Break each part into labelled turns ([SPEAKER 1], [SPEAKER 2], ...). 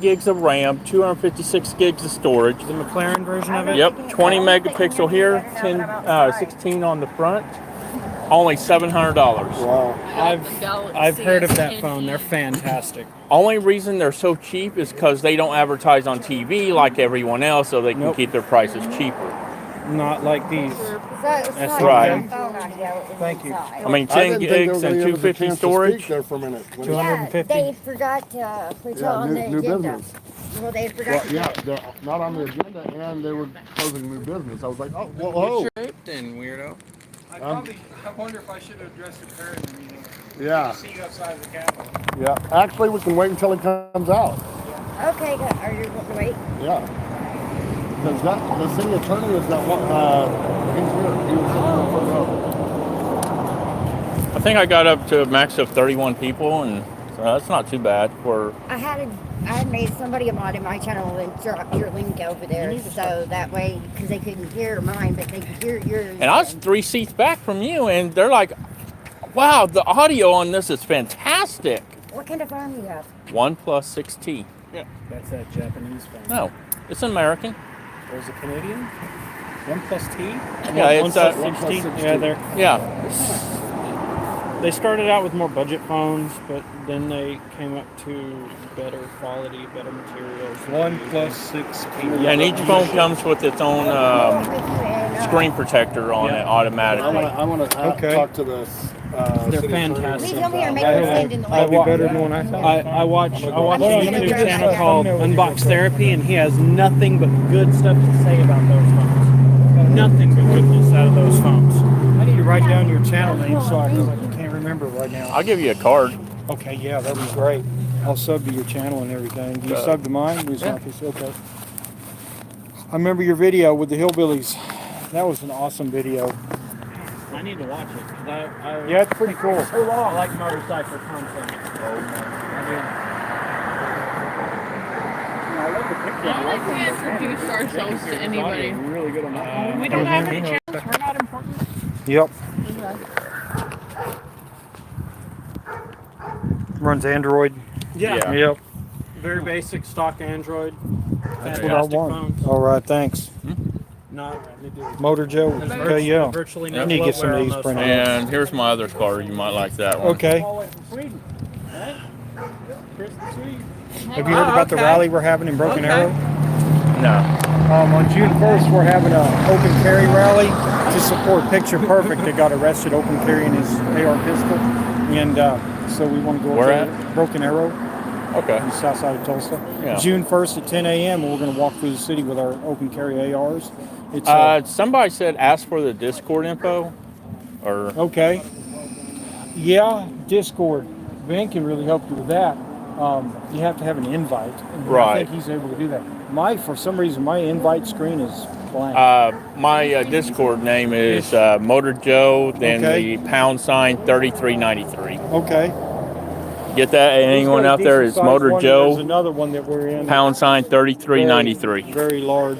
[SPEAKER 1] gigs of RAM, 256 gigs of storage.
[SPEAKER 2] The McLaren version of it?
[SPEAKER 1] Yep, 20 megapixel here, 10, uh, 16 on the front. Only $700.
[SPEAKER 3] Wow.
[SPEAKER 2] I've, I've heard of that phone. They're fantastic.
[SPEAKER 1] Only reason they're so cheap is because they don't advertise on TV like everyone else, so they can
[SPEAKER 2] Nope.
[SPEAKER 1] keep their prices cheaper.
[SPEAKER 2] Not like these.
[SPEAKER 4] That's
[SPEAKER 2] That's
[SPEAKER 1] right.
[SPEAKER 2] Thank you.
[SPEAKER 1] I mean,
[SPEAKER 3] I
[SPEAKER 1] 10
[SPEAKER 3] didn't think
[SPEAKER 1] gigs
[SPEAKER 3] there
[SPEAKER 1] and
[SPEAKER 3] was gonna give us a
[SPEAKER 1] 250
[SPEAKER 3] chance to
[SPEAKER 1] storage.
[SPEAKER 3] speak There for a minute. When-
[SPEAKER 2] Yeah.
[SPEAKER 3] Well,
[SPEAKER 2] 150.
[SPEAKER 4] They forgot to put
[SPEAKER 3] Yeah,
[SPEAKER 4] on
[SPEAKER 3] new-
[SPEAKER 4] the
[SPEAKER 3] new
[SPEAKER 4] agenda.
[SPEAKER 3] business.
[SPEAKER 4] Well, they forgot. to-
[SPEAKER 3] Yeah, they're not on the agenda and they were closing new business. I was like, oh, whoa, whoa.
[SPEAKER 2] Then, weirdo.
[SPEAKER 5] Um,
[SPEAKER 6] I probably, I wonder if I should have addressed the parent in the meeting.
[SPEAKER 3] Yeah,
[SPEAKER 6] See you outside of the Capitol.
[SPEAKER 3] yeah. Actually, we can wait until it comes out.
[SPEAKER 4] Okay, good. Are you going to wait?
[SPEAKER 3] Yeah. Because that, the city attorney is that one, uh, he's here. He was sitting on the front row.
[SPEAKER 1] I think I got up to a max of 31 people, and so that's not too bad for.
[SPEAKER 4] I had a, I made somebody a mod in my channel and dropped your link over there, so that way, because they couldn't hear mine, but they could hear yours.
[SPEAKER 1] And I was three seats back from you, and they're like, wow, the audio on this is fantastic.
[SPEAKER 4] What kind of phone you have?
[SPEAKER 1] One 6T.
[SPEAKER 2] That's that Japanese phone.
[SPEAKER 1] No, it's American.
[SPEAKER 2] There's a Canadian? One plus T?
[SPEAKER 1] Yeah, it's, uh,
[SPEAKER 3] One plus
[SPEAKER 2] 60.
[SPEAKER 3] 60.
[SPEAKER 2] Yeah, they're,
[SPEAKER 1] Yeah,
[SPEAKER 2] they started out with more budget phones, but then they came up to better quality, better materials.
[SPEAKER 5] One plus six people.
[SPEAKER 1] and each phone comes with its own um,
[SPEAKER 4] uh,
[SPEAKER 1] screen protector on it
[SPEAKER 2] Yeah.
[SPEAKER 3] I
[SPEAKER 1] automatically.
[SPEAKER 3] wanna, I wanna uh,
[SPEAKER 5] Okay.
[SPEAKER 3] talk to the, s- uh.
[SPEAKER 2] They're
[SPEAKER 3] city attorney when
[SPEAKER 2] fantastic.
[SPEAKER 3] it
[SPEAKER 4] Please
[SPEAKER 3] comes
[SPEAKER 4] tell me you're
[SPEAKER 3] out.
[SPEAKER 4] making a stand in the way.
[SPEAKER 2] I wa-
[SPEAKER 5] better than one I thought.
[SPEAKER 2] I, I watch I watch a
[SPEAKER 4] I'm gonna
[SPEAKER 2] YouTube
[SPEAKER 4] go
[SPEAKER 2] channel
[SPEAKER 4] check.
[SPEAKER 2] called Unbox Therapy, and he has nothing but good stuff to say about those phones. Nothing but goodness out of those phones.
[SPEAKER 5] I need to write down your channel name so I know. I can't remember right now.
[SPEAKER 1] I'll give you a card.
[SPEAKER 5] Okay, yeah, that'd be great. I'll sub to your channel and everything. You
[SPEAKER 1] Uh,
[SPEAKER 5] sub to mine? We
[SPEAKER 1] yeah.
[SPEAKER 5] sub this, okay. I remember your video with the hillbillies. That was an awesome video.
[SPEAKER 2] I need to watch it. 'cause I, I,
[SPEAKER 5] Yeah, it's pretty cool.
[SPEAKER 2] So long. I like motorcycle content. I
[SPEAKER 7] I don't think we introduced ourselves to
[SPEAKER 2] do.
[SPEAKER 7] anybody.
[SPEAKER 2] I'm really good on that.
[SPEAKER 7] We don't have any channels. We're not important.
[SPEAKER 5] Yep. Runs Android.
[SPEAKER 2] Yeah,
[SPEAKER 5] Yep.
[SPEAKER 2] very basic stock Android.
[SPEAKER 5] That's
[SPEAKER 2] Fantastic
[SPEAKER 5] what I want.
[SPEAKER 2] phones.
[SPEAKER 5] All right, thanks.
[SPEAKER 2] Not really good.
[SPEAKER 5] Motor Joe.
[SPEAKER 2] There's
[SPEAKER 5] Okay,
[SPEAKER 2] virtu-
[SPEAKER 5] yeah.
[SPEAKER 2] Virtually
[SPEAKER 5] Yeah.
[SPEAKER 2] no
[SPEAKER 5] Need to get some
[SPEAKER 2] bloatware
[SPEAKER 5] of
[SPEAKER 2] on
[SPEAKER 5] these
[SPEAKER 2] those
[SPEAKER 5] printed.
[SPEAKER 2] phones.
[SPEAKER 1] And here's my other card. You might like that one.
[SPEAKER 5] Okay.
[SPEAKER 2] All the way from Sweden. Right? Chris the Swede.
[SPEAKER 5] Have you heard about the rally we're having in Broken Arrow?
[SPEAKER 1] No.
[SPEAKER 5] Um, on June 1st, we're having an open carry rally to support Picture Perfect that got arrested open carrying his AR pistol. And uh, so we want to go
[SPEAKER 1] Where
[SPEAKER 5] up to Broken Arrow
[SPEAKER 1] Okay.
[SPEAKER 5] on the south side of Tulsa.
[SPEAKER 1] Yeah.
[SPEAKER 5] June 1st at 10 a.m. We're going to walk through the city with our open carry ARs. It's uh,
[SPEAKER 1] Uh, somebody said ask for the Discord info, or
[SPEAKER 5] okay. Yeah, Discord. Ben can really help you with that. Um, you have to have an invite. And I
[SPEAKER 1] Right.
[SPEAKER 5] think he's able to do that. My, for some reason, my invite screen is blank.
[SPEAKER 1] uh, my uh, Discord name is uh, Motor Joe. Then
[SPEAKER 5] Okay.
[SPEAKER 1] the pound sign 3393.
[SPEAKER 5] okay.
[SPEAKER 1] Get that? And anyone out there is Motor
[SPEAKER 5] There's
[SPEAKER 1] Joe.
[SPEAKER 5] another one that we're in.
[SPEAKER 1] Pound sign
[SPEAKER 5] Very-
[SPEAKER 1] 3393.
[SPEAKER 5] Very large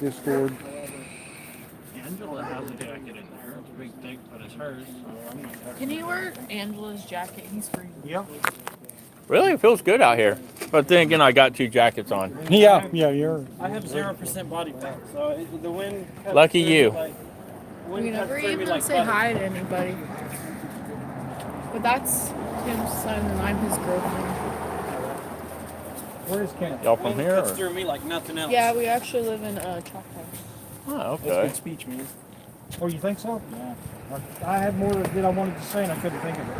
[SPEAKER 5] Discord.
[SPEAKER 2] Angela has a jacket in there. It's a big thing, but it's hers, so I'm not
[SPEAKER 7] Can you wear Angela's jacket? He's free.
[SPEAKER 5] Yeah.
[SPEAKER 1] Really, it feels good out here. But then again, I got two jackets on.
[SPEAKER 5] Yeah, yeah, you're.
[SPEAKER 2] I have zero percent body fat, so it, the wind. cuts
[SPEAKER 1] Lucky
[SPEAKER 2] through me
[SPEAKER 1] you.
[SPEAKER 2] Like,
[SPEAKER 7] We
[SPEAKER 2] wind cuts
[SPEAKER 7] never
[SPEAKER 2] through me
[SPEAKER 7] even
[SPEAKER 2] like
[SPEAKER 7] say
[SPEAKER 2] butter.
[SPEAKER 7] hi to anybody. But that's Tim's son and I'm his girlfriend.
[SPEAKER 5] Where's Ken?
[SPEAKER 1] Y'all from
[SPEAKER 2] Wind
[SPEAKER 1] here?
[SPEAKER 2] cuts
[SPEAKER 1] Or?
[SPEAKER 2] through me like nothing else.
[SPEAKER 7] Yeah, we actually live in uh, Choctaw.
[SPEAKER 1] Oh,
[SPEAKER 2] That's
[SPEAKER 1] okay.
[SPEAKER 2] good speech, man.
[SPEAKER 5] Oh, you think so? Yeah. I had more that I wanted to say and I couldn't think of it.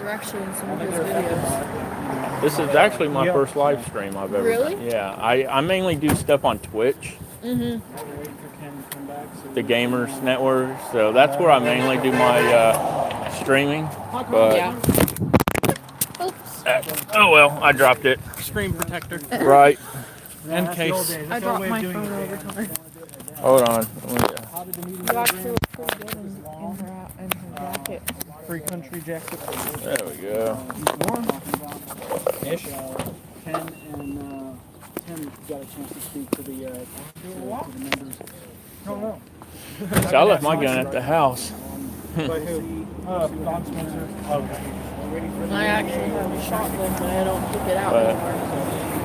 [SPEAKER 7] We're actually in some of his videos.
[SPEAKER 1] This is actually my
[SPEAKER 5] Yeah.
[SPEAKER 1] first live stream I've ever
[SPEAKER 7] Really?
[SPEAKER 1] done. Yeah, I, I mainly do stuff on Twitch,
[SPEAKER 5] While we're waiting for Ken to come back, so
[SPEAKER 1] the
[SPEAKER 5] we-
[SPEAKER 1] Gamers Network. So that's where I mainly do my uh, streaming. But
[SPEAKER 7] Yeah. Oops.
[SPEAKER 1] uh, oh well, I dropped it.
[SPEAKER 2] Screen protector.
[SPEAKER 1] Right.
[SPEAKER 2] And case.
[SPEAKER 7] I dropped my phone over to her.
[SPEAKER 1] Hold on. Let me-
[SPEAKER 7] You actually look pretty good in, in her, in her jacket.
[SPEAKER 5] Free country jacket.
[SPEAKER 1] There we go.
[SPEAKER 5] Warm. Ish. uh, Ken and, uh, Tim got a chance to speak to the, uh, to the members. No, no.
[SPEAKER 1] So I left my gun at the house.
[SPEAKER 5] By who? Uh, Don Spencer. Okay.
[SPEAKER 7] I actually have a shotgun, but I don't keep it out
[SPEAKER 1] But-
[SPEAKER 7] anymore.